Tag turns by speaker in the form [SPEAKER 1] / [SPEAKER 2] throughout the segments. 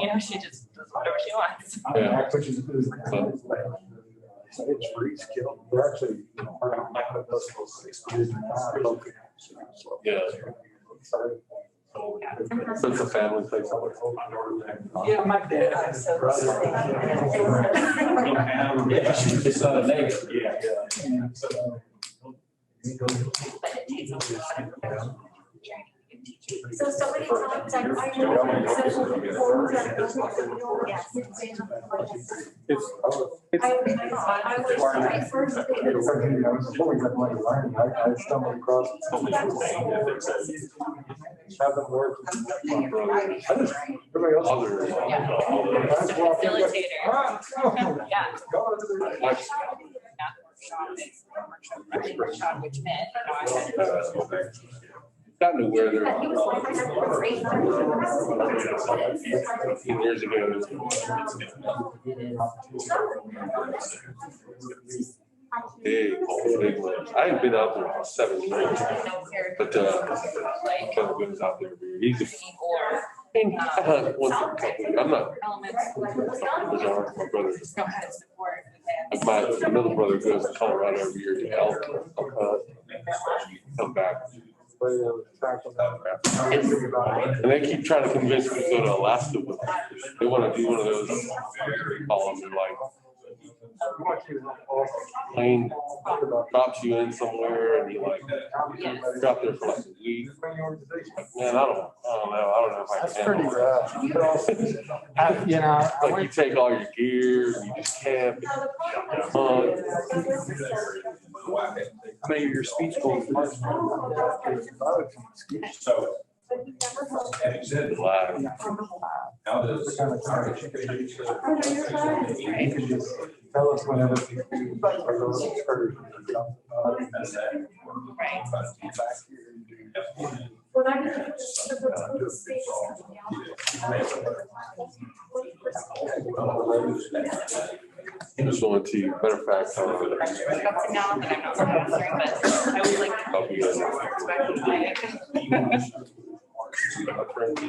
[SPEAKER 1] you know, she just does whatever she wants.
[SPEAKER 2] Yeah.
[SPEAKER 3] Which is. is-
[SPEAKER 2] So-
[SPEAKER 3] So It's free skill. They're actually, you know, part of my personal six.
[SPEAKER 2] Yeah. So it's a family place.
[SPEAKER 3] Yeah.
[SPEAKER 4] Yeah, my dad.
[SPEAKER 1] Oh, so-
[SPEAKER 3] It's not a negative. Yeah.
[SPEAKER 1] But it takes a lot of professional training to get teachers.
[SPEAKER 5] So somebody tell him, like, I know. Yes.
[SPEAKER 6] It's,
[SPEAKER 5] I
[SPEAKER 6] it's,
[SPEAKER 5] was, I was my first.
[SPEAKER 3] Before we got money learning, I, I stumbled across. Haven't worked. Everybody else.
[SPEAKER 2] Other.
[SPEAKER 3] That's why-
[SPEAKER 1] Facilitator.
[SPEAKER 3] Ah, no.
[SPEAKER 1] Yeah.
[SPEAKER 3] Go to the-
[SPEAKER 1] Not workshop, it's workshop, right, workshop, which meant, you know, I had
[SPEAKER 2] Not to where they're.
[SPEAKER 5] He was like, I have a great.
[SPEAKER 2] Years ago. Big, old, big ones. I haven't been out there in seven years,
[SPEAKER 1] no care.
[SPEAKER 2] but, uh,
[SPEAKER 1] Like,
[SPEAKER 2] but goes out there. He's a.
[SPEAKER 1] or
[SPEAKER 2] Once in a couple, I'm not,
[SPEAKER 1] elements.
[SPEAKER 2] bizarre. my brother,
[SPEAKER 1] Just don't have support. with
[SPEAKER 2] my middle brother goes to Colorado every year to help. uh, Come back.
[SPEAKER 3] But, uh, back to that.
[SPEAKER 2] And they keep trying to convince me to go to Alaska with them. They want to do one of those, call them, like, plane drops you in somewhere and you like, you're out there for like a week. Man, I don't, I don't know, I don't know if I can.
[SPEAKER 3] That's pretty rough. You
[SPEAKER 6] I- you know, I
[SPEAKER 2] Like you
[SPEAKER 6] went,
[SPEAKER 2] take all your gear, you just camp. hunt.
[SPEAKER 6] I mean, your speech goals.
[SPEAKER 7] So.
[SPEAKER 2] Relax.
[SPEAKER 7] Now there's.
[SPEAKER 3] can just tell us whenever. you are those excursions.
[SPEAKER 1] Right.
[SPEAKER 5] When I was in
[SPEAKER 2] I was going to, matter of fact, I was
[SPEAKER 1] Up to now that I'm not sponsoring, but I would like. to
[SPEAKER 2] I'll be
[SPEAKER 1] get
[SPEAKER 2] good.
[SPEAKER 1] more perspective.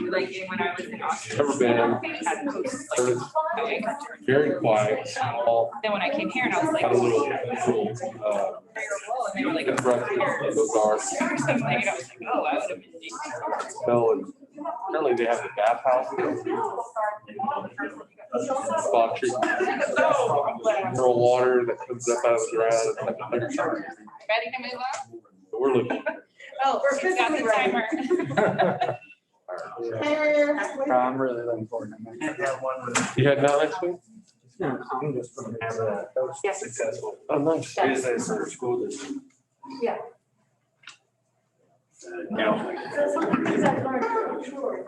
[SPEAKER 1] Like when I was in Austin.
[SPEAKER 2] Never been,
[SPEAKER 1] I had coaches, like,
[SPEAKER 2] heard it's
[SPEAKER 1] okay, got to-
[SPEAKER 2] very quiet, small,
[SPEAKER 1] Then when I came here and I was like.
[SPEAKER 2] had a little, little, uh,
[SPEAKER 1] And they were like.
[SPEAKER 2] breakfast, those are,
[SPEAKER 1] Or something, and I was like, oh, I would have been.
[SPEAKER 2] smell and apparently they have the bathhouse. Spot treatment, mineral water that comes up out of the ground. It's like a hundred times.
[SPEAKER 1] Ready to move on?
[SPEAKER 2] We're living.
[SPEAKER 1] Oh, we're got the timer.
[SPEAKER 6] I'm really looking forward to it.
[SPEAKER 2] You had that next week?
[SPEAKER 6] No, I'm just gonna have a
[SPEAKER 3] Successful
[SPEAKER 2] Oh, nice.
[SPEAKER 3] business or school district.
[SPEAKER 2] É, um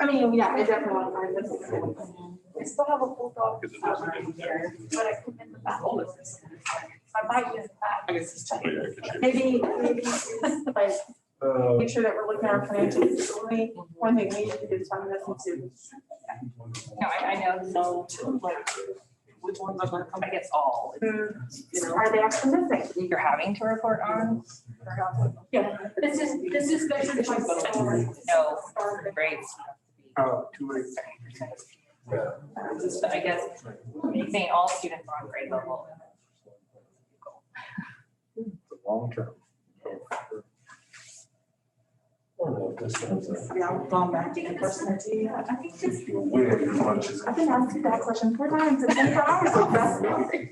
[SPEAKER 5] I mean, yeah, I definitely want to find this. I still have a full dog.
[SPEAKER 2] Because it doesn't
[SPEAKER 5] collar here, But I come in the back. I might use that.
[SPEAKER 1] I guess it's
[SPEAKER 2] Oh, yeah, I could do it.
[SPEAKER 5] Maybe, maybe, like,
[SPEAKER 6] Oh,
[SPEAKER 5] make sure that we're looking at our financials. It's only One thing we need to do is find this and see.
[SPEAKER 1] No, I, I know, no, to, like, which ones are gonna come, I guess all,
[SPEAKER 5] Mm-hmm.
[SPEAKER 1] you know,
[SPEAKER 5] Are they actually missing?
[SPEAKER 1] you're having to report on. or not.
[SPEAKER 5] Yeah, this is, this is measured by.
[SPEAKER 1] No, grades.
[SPEAKER 6] Oh, two weeks.
[SPEAKER 1] Um, Just, I guess, saying all students are on grade level.
[SPEAKER 3] Long term.
[SPEAKER 8] Yeah, I'm going back to the person.
[SPEAKER 5] Yeah, I think just,
[SPEAKER 3] I've
[SPEAKER 5] I've been asking that question four times in twenty-four hours. like, that's nothing.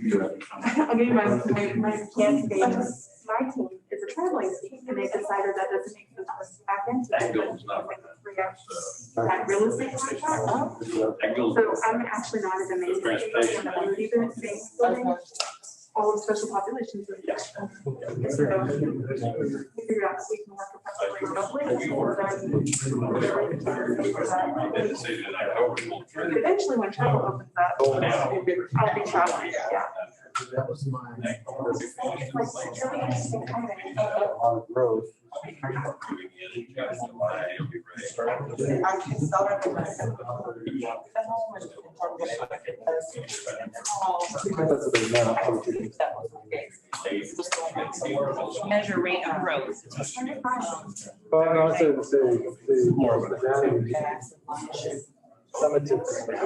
[SPEAKER 5] I'll give you my, my, my candidate, my team is a traveling team, and they decided that doesn't make sense for us to back into. it. Three hours. That real estate contract, Oh, so I'm actually not as amazing.
[SPEAKER 7] Transportation.
[SPEAKER 5] All of special populations. are- We figured out that we can work effectively remotely. But Eventually, when travel opens up, I'll be traveling, yeah.
[SPEAKER 3] That was my.
[SPEAKER 5] It's like, it's really interesting timing.
[SPEAKER 3] A lot of growth.
[SPEAKER 8] I can sell it.
[SPEAKER 3] That's what they meant.
[SPEAKER 1] Measure rate of growth. Um,
[SPEAKER 3] But I would say the, the. More of a. Summative.